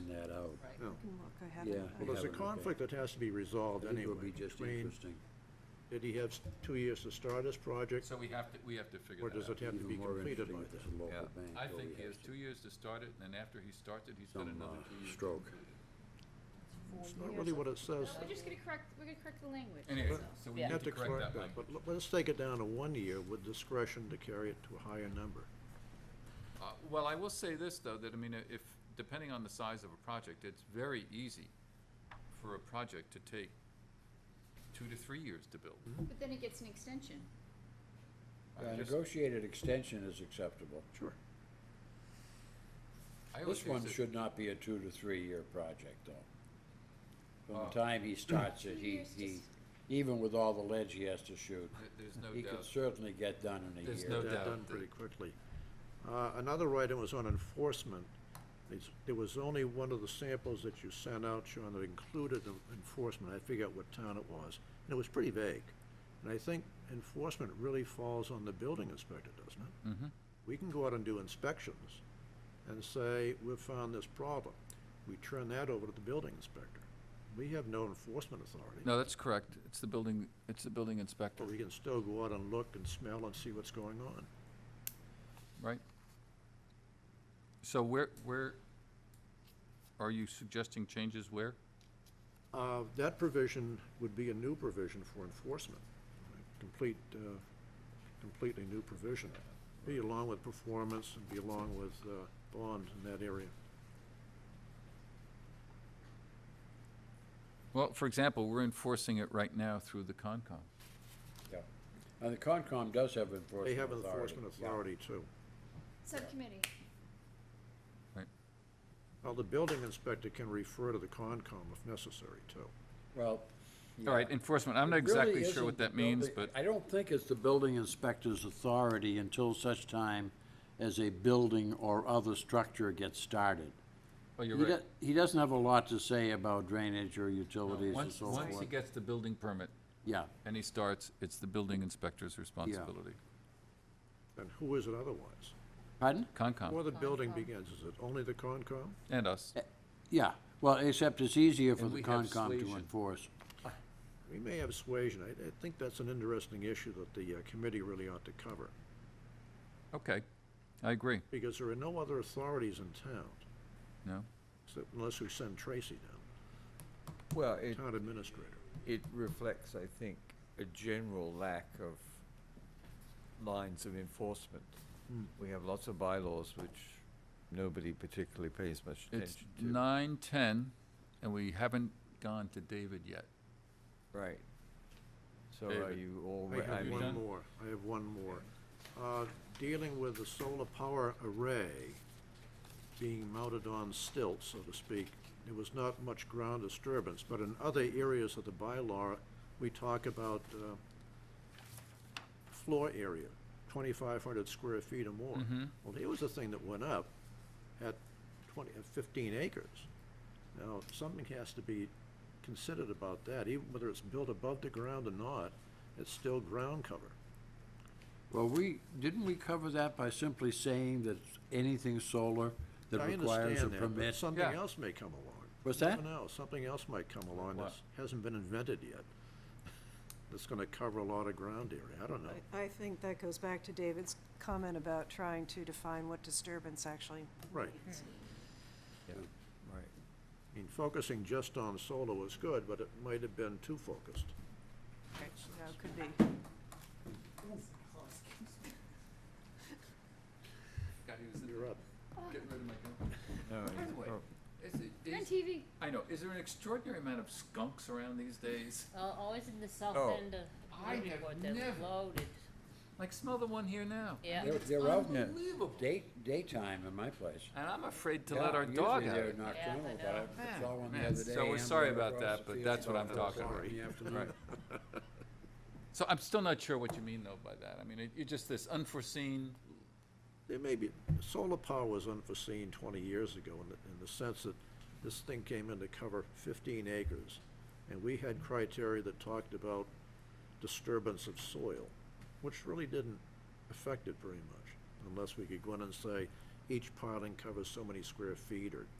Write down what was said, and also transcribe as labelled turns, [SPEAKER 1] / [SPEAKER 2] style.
[SPEAKER 1] Right.
[SPEAKER 2] No.
[SPEAKER 3] can look, I
[SPEAKER 4] Yeah.
[SPEAKER 3] haven't.
[SPEAKER 2] Well, there's a
[SPEAKER 4] haven't, okay.
[SPEAKER 2] conflict that has to be resolved
[SPEAKER 4] That
[SPEAKER 2] anyway.
[SPEAKER 4] would be just
[SPEAKER 2] between-
[SPEAKER 4] interesting.
[SPEAKER 2] Did he have s- two years to start his project,
[SPEAKER 5] So we have to, we have to figure
[SPEAKER 2] or
[SPEAKER 5] that
[SPEAKER 2] does it
[SPEAKER 5] out.
[SPEAKER 2] have to
[SPEAKER 4] Even
[SPEAKER 2] be
[SPEAKER 4] more
[SPEAKER 2] completed
[SPEAKER 4] interesting
[SPEAKER 2] by
[SPEAKER 4] if
[SPEAKER 2] then?
[SPEAKER 4] it's a local
[SPEAKER 5] Yeah,
[SPEAKER 4] bank,
[SPEAKER 5] I
[SPEAKER 4] though,
[SPEAKER 5] think
[SPEAKER 4] we
[SPEAKER 5] he
[SPEAKER 4] have
[SPEAKER 5] has two years to start it, and then after he starts it, he's got
[SPEAKER 4] some,
[SPEAKER 5] another
[SPEAKER 4] uh,
[SPEAKER 5] two years. to
[SPEAKER 4] stroke.
[SPEAKER 5] complete it.
[SPEAKER 2] It's not really what it says.
[SPEAKER 6] We're just gonna correct, we're gonna correct the language.
[SPEAKER 5] Anyway,
[SPEAKER 6] that's all.
[SPEAKER 5] so we
[SPEAKER 1] Yeah.
[SPEAKER 5] need to correct that
[SPEAKER 2] But
[SPEAKER 5] language.
[SPEAKER 2] l- let's take it down to one year with discretion to carry it to a higher number.
[SPEAKER 5] Uh, Well, I will say this, though, that, I mean, uh, if, depending on the size of a project, it's very easy for a project to take two to three years to build.
[SPEAKER 6] But then it gets an extension.
[SPEAKER 5] I
[SPEAKER 4] A
[SPEAKER 5] just-
[SPEAKER 4] negotiated extension is acceptable.
[SPEAKER 2] Sure.
[SPEAKER 5] I always
[SPEAKER 4] This
[SPEAKER 5] use
[SPEAKER 4] one
[SPEAKER 5] it-
[SPEAKER 4] should not be a two to three-year project, though. From
[SPEAKER 5] Oh.
[SPEAKER 4] the time he starts it,
[SPEAKER 6] Two
[SPEAKER 4] he,
[SPEAKER 6] years
[SPEAKER 4] he,
[SPEAKER 6] just-
[SPEAKER 4] even with all the ledge he has to shoot,
[SPEAKER 5] There- There's no
[SPEAKER 4] he could
[SPEAKER 5] doubt.
[SPEAKER 4] certainly get done in a year.
[SPEAKER 5] There's No
[SPEAKER 2] That
[SPEAKER 5] doubt
[SPEAKER 2] done
[SPEAKER 5] that-
[SPEAKER 2] pretty quickly. Uh, Another item was on enforcement. It's- There was only one of the samples that you sent out, Sean, that included the enforcement. I figured out what town it was, and it was pretty vague. And I think enforcement really falls on the building inspector, doesn't it?
[SPEAKER 5] Mhm.
[SPEAKER 2] We can go out and do inspections and say, we've found this problem. We turn that over to the building inspector. We have no enforcement authority.
[SPEAKER 5] No, that's correct. It's the building, it's the building inspector,
[SPEAKER 2] But we can still go out and look and smell and see what's going on.
[SPEAKER 5] right? So where, where, are you suggesting changes where?
[SPEAKER 2] Uh, That provision would be a new provision for enforcement, a complete, uh, completely new provision. Be along with performance and be along with uh, bond in that area.
[SPEAKER 5] Well, for example, we're enforcing it right now through the Concom.
[SPEAKER 4] Yeah. And the Concom does have enforcement
[SPEAKER 2] They
[SPEAKER 4] authority.
[SPEAKER 2] have enforcement
[SPEAKER 4] yeah.
[SPEAKER 2] authority too.
[SPEAKER 6] Subcommittee.
[SPEAKER 2] Well, the building inspector can refer to the Concom if necessary too.
[SPEAKER 4] Well.
[SPEAKER 5] All right,
[SPEAKER 4] yeah.
[SPEAKER 5] enforcement, I'm not
[SPEAKER 4] It really
[SPEAKER 5] exactly sure
[SPEAKER 4] isn't
[SPEAKER 5] what
[SPEAKER 4] the
[SPEAKER 5] that means,
[SPEAKER 4] building-
[SPEAKER 5] but,
[SPEAKER 4] I don't think it's the building inspector's authority until such time as a building or other structure gets started.
[SPEAKER 5] oh, you're
[SPEAKER 4] He
[SPEAKER 5] right.
[SPEAKER 4] do- He doesn't have a lot to say about drainage or utilities and
[SPEAKER 5] Once,
[SPEAKER 4] so
[SPEAKER 5] once he
[SPEAKER 4] forth.
[SPEAKER 5] gets the building permit
[SPEAKER 4] Yeah,
[SPEAKER 5] and he starts, it's the building inspector's responsibility.
[SPEAKER 2] And who is it otherwise?
[SPEAKER 4] pardon?
[SPEAKER 5] Concom
[SPEAKER 2] Before the building begins, is it only the Concom?
[SPEAKER 5] and us.
[SPEAKER 4] eh. Yeah, well, except it's easier for
[SPEAKER 5] And
[SPEAKER 4] the
[SPEAKER 5] we have
[SPEAKER 4] Concom to
[SPEAKER 5] suasion.
[SPEAKER 4] enforce.
[SPEAKER 2] We may have suasion. I, I think that's an interesting issue that the uh, committee really ought to cover,
[SPEAKER 5] Okay, I agree,
[SPEAKER 2] because there are no other authorities in town,
[SPEAKER 5] no?
[SPEAKER 2] except unless we send Tracy down.
[SPEAKER 7] Well, it,
[SPEAKER 2] town administrator.
[SPEAKER 7] it reflects, I think, a general lack of lines of enforcement. We have lots of bylaws which nobody particularly pays much
[SPEAKER 5] It's
[SPEAKER 7] attention to.
[SPEAKER 5] nine, ten, and we haven't gone to David yet.
[SPEAKER 7] Right. So are
[SPEAKER 5] David.
[SPEAKER 7] you all,
[SPEAKER 2] I
[SPEAKER 7] re- I
[SPEAKER 2] have
[SPEAKER 7] mean,
[SPEAKER 2] one more, I have one more. Uh, Dealing with the solar power array being mounted on stilts, so to speak, there was not much ground disturbance, but in other areas of the bylaw, we talk about uh, floor area, 2,500 square feet or more.
[SPEAKER 7] Mm-hmm.
[SPEAKER 2] Well, here was a thing that went up at 20, at 15 acres. Now, something has to be considered about that, even whether it's built above the ground or not, it's still ground cover.
[SPEAKER 4] Well, we, didn't we cover that by simply saying that anything solar that
[SPEAKER 2] I
[SPEAKER 4] requires a
[SPEAKER 2] understand that, but
[SPEAKER 4] permit?
[SPEAKER 2] Something
[SPEAKER 5] Yeah.
[SPEAKER 2] else may come along.
[SPEAKER 4] What's
[SPEAKER 2] You
[SPEAKER 4] that?
[SPEAKER 2] never know, something else might come along
[SPEAKER 5] What?
[SPEAKER 2] that hasn't been invented yet. That's gonna cover a lot of ground area, I don't know.
[SPEAKER 3] I- I think that goes back to David's comment about trying to define what disturbance actually
[SPEAKER 2] Right.
[SPEAKER 7] right.
[SPEAKER 2] I mean, focusing just on solar was good, but it might have been too focused.
[SPEAKER 3] you know, could be.
[SPEAKER 2] You're up.
[SPEAKER 5] Getting rid of my
[SPEAKER 7] No,
[SPEAKER 5] By
[SPEAKER 7] it's
[SPEAKER 5] the way,
[SPEAKER 7] prob-
[SPEAKER 5] is it-
[SPEAKER 6] You're on
[SPEAKER 5] is-
[SPEAKER 6] TV.
[SPEAKER 5] I know, is there an extraordinary amount of skunks around these days?
[SPEAKER 8] Well, Uh, always in the south
[SPEAKER 7] Oh.
[SPEAKER 8] end of
[SPEAKER 5] I have
[SPEAKER 8] Newburyport, they're
[SPEAKER 5] never-
[SPEAKER 8] loaded,
[SPEAKER 5] Like, smell the one here now.
[SPEAKER 8] yeah.
[SPEAKER 4] They're, they're out in the
[SPEAKER 5] Unbelievable.
[SPEAKER 4] day, daytime in my place.
[SPEAKER 5] And I'm afraid to
[SPEAKER 4] Yeah,
[SPEAKER 5] let our
[SPEAKER 4] usually
[SPEAKER 5] dog out.
[SPEAKER 4] they're
[SPEAKER 5] it.
[SPEAKER 4] nocturnal,
[SPEAKER 8] Yeah, I
[SPEAKER 4] but I
[SPEAKER 8] know.
[SPEAKER 5] Man,
[SPEAKER 4] saw one the
[SPEAKER 5] man,
[SPEAKER 4] other
[SPEAKER 5] so
[SPEAKER 4] day
[SPEAKER 5] we're
[SPEAKER 4] ambling
[SPEAKER 5] sorry about
[SPEAKER 4] across
[SPEAKER 5] that,
[SPEAKER 4] the
[SPEAKER 5] but
[SPEAKER 4] field
[SPEAKER 5] that's what I'm
[SPEAKER 4] about
[SPEAKER 5] talking
[SPEAKER 4] four
[SPEAKER 2] about.
[SPEAKER 4] in the
[SPEAKER 5] Right.
[SPEAKER 4] afternoon.
[SPEAKER 5] So I'm still not sure what you mean though by that. I mean, it, it's just this unforeseen,
[SPEAKER 2] There may be, solar power was unforeseen twenty years ago in the, in the sense that this thing came in to cover fifteen acres. And we had criteria that talked about disturbance of soil, which really didn't affect it very much. Unless we could go in and say, each piling covers so many square feet or